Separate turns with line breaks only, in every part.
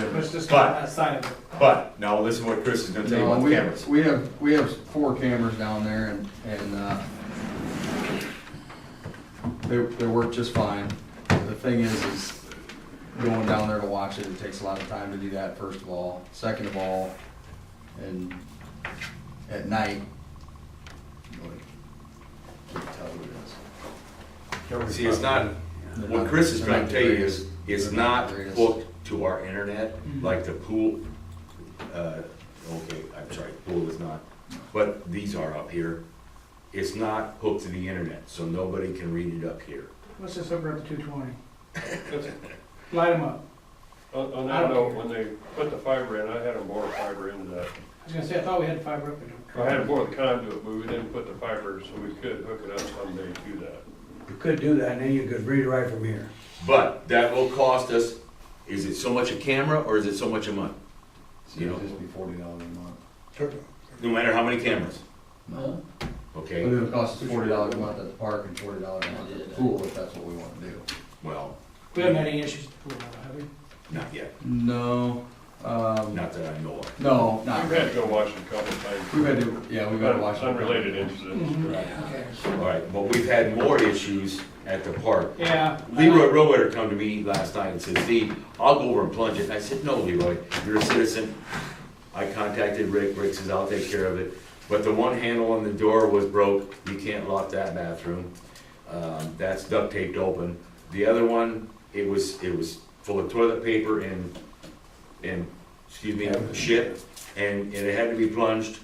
just
But-
on that side of it.
But, now listen to what Chris is gonna tell you
No,
about the
we-
cameras.
We have, we have four cameras down there and, and, uh, they, they work just fine. The thing is, is going down there to watch it, it takes a lot of time to do that, first of all. Second of all, and at night, you really can't tell who it
See, it's not,
is.
what Chris is
They're
trying
not
to tell you
greatest.
is, it's
They're not
not
the greatest.
hooked to our internet,
Mm-hmm.
like the pool, uh, okay, I'm sorry, pool is not, but these are up here. It's not hooked to the internet, so nobody can read it up here.
Let's just hook her up to two twenty. Light them up.
On, on that note, when they put the fiber in, I had them bore fiber into
I
that.
was gonna say, I thought we had fiber up there.
I had them bore the conduit, but we didn't put the fiber, so we could hook it up someday to that.
You could do that, and then you could read right from here.
But that will cost us, is it so much a camera or is it so much a month?
So it'd just be forty dollars a month.
No matter how many cameras,
No. But
okay?
it would cost us forty dollars a month at the park and forty dollars a month at the pool, if that's what we wanna do.
Well,
We haven't had any issues with the pool, have we?
not yet,
No, um,
not that I know of.
no,
I've
not
had
really.
to go watch it a couple times.
We've had to, yeah, we've had to watch. it.
Unrelated incidents.
Mm-hmm. Okay.
All right, but we've had more issues at the park
Yeah.
Leroy Rowetter come to me last night and said, Steve, I'll go over and plunge it. And I said, no, Leroy, you're a citizen. I contacted Rick, Rick says, I'll take care of it. But the one handle on the door was broke, you can't lock that bathroom. Um, that's duct taped open. The other one, it was, it was full of toilet paper and, and, excuse me, shit. And, and it had to be plunged,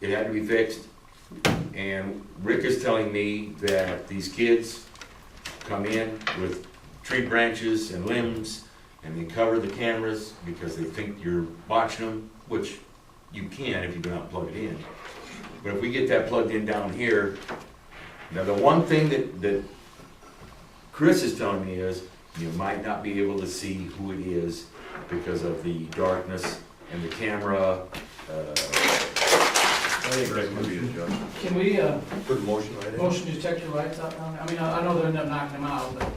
it had to be fixed. And Rick is telling me that these kids come in with tree branches and limbs, and they cover the cameras because they think you're watching them, which you can if you do not plug it in. But if we get that plugged in down here, now the one thing that, that Chris is telling me is, you might not be able to see who it is because of the darkness and the camera, uh,
I think that could be adjusted.
Can we, uh,
Put a motion right in.
motion to check your lights out down there? I mean, I I know they'll end up knocking them out, but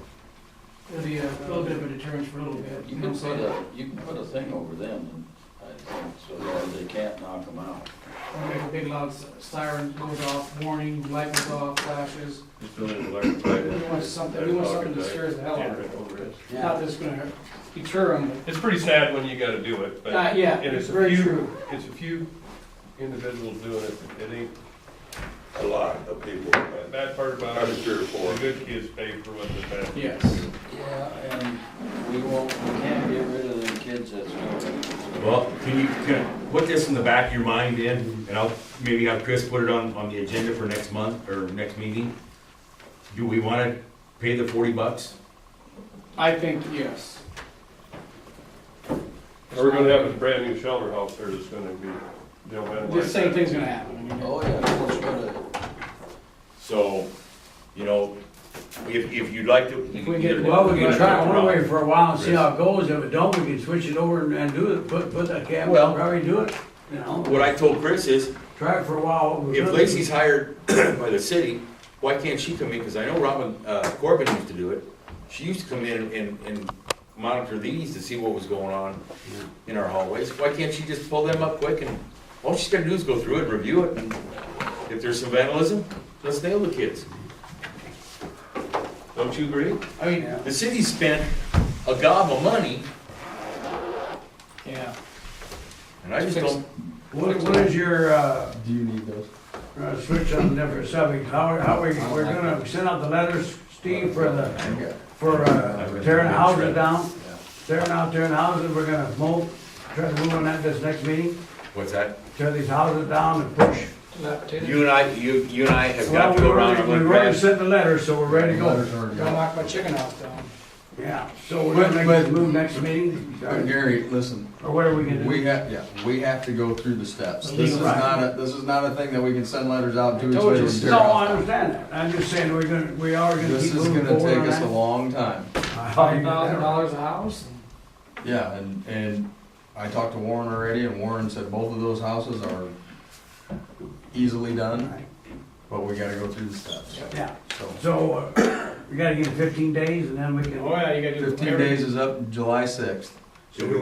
it'll be a little bit of a deterrent for a little bit.
You can
know what I'm
put
saying?
a, you can put a thing over them, and I think, so that they can't knock them out.
Or make a big loud s- siren goes off, warning, light goes off, flashes.
Just a little electrified.
We want something, we want something that scares the hell out of them. Not that it's gonna deter them,
It's pretty sad when you gotta do it,
but,
but.
uh, yeah,
And
it's
it's a
very
few-
true.
It's a few individuals doing it, it ain't,
A lot of people,
the bad part about
probably
it,
three or four.
the good kids pay for what the bad.
Yes.
Yeah, and we won't, we can't get rid of them kids that's going.
Well, can you, can, put this in the back of your mind then, and I'll, maybe have Chris put it on, on the agenda for next month, or next meeting? Do we wanna pay the forty bucks?
I think, yes.
We're gonna have a brand new shelter house there that's gonna be, they'll have.
The same thing's gonna happen. I mean,
Oh, yeah, of course, but
So, you know, if, if you'd like to.
If we get-
Well, we can try one way for a while and see how it goes, if it don't, we can switch it over and- and do it, put, put that cap,
Well-
probably do it, you know?
What I told Chris is,
Try it for a while.
if Lacey's hired by the city, why can't she come in, cause I know Robin, uh, Corbin used to do it. She used to come in and, and monitor these to see what was going on in our hallways, why can't she just pull them up quick and, all she's gotta do is go through it, and review it, and if there's some vandalism, let's nail the kids. Don't you agree? I mean, the city spent a gob of money,
Yeah.
and I just don't,
What, what is your, uh,
Do you need those?
uh, switch on different subjects, how, how we, we're gonna send out the letters, Steve, for the,
Yeah.
for, uh, tearing houses down?
Yeah.
Tearing out, tearing houses, we're gonna mow, try to move on that this next meeting,
what's that?
tear these houses down and push.
You and I, you, you and I have got
Well,
to
we
go around and
already, we
look
already
at.
sent the letters, so we're ready to go.
Letters are
Don't
gone.
knock my chicken house down.
Yeah, so we're
But-
gonna make
but-
the move next meeting,
But Gary, listen,
or what are we gonna do?
we have, yeah, we have to go through the steps. This is
Right.
not a, this is not a thing that we can send letters out two weeks
told
later.
you,
and tear
No, I
off.
understand that, I'm just saying, we're gonna, we are gonna
This
keep
is
moving
gonna
forward
take
on
us a
that.
long time.
I thought
Five
you
thousand
were-
dollars a house?
Yeah, and, and I talked to Warren already, and Warren said both of those houses are easily done, but we gotta go through the steps,
Yeah,
so.
so, uh, we gotta give it fifteen days and then we can.
Oh, yeah, you gotta do.
Fifteen
everything.
days is up July sixth.
Should we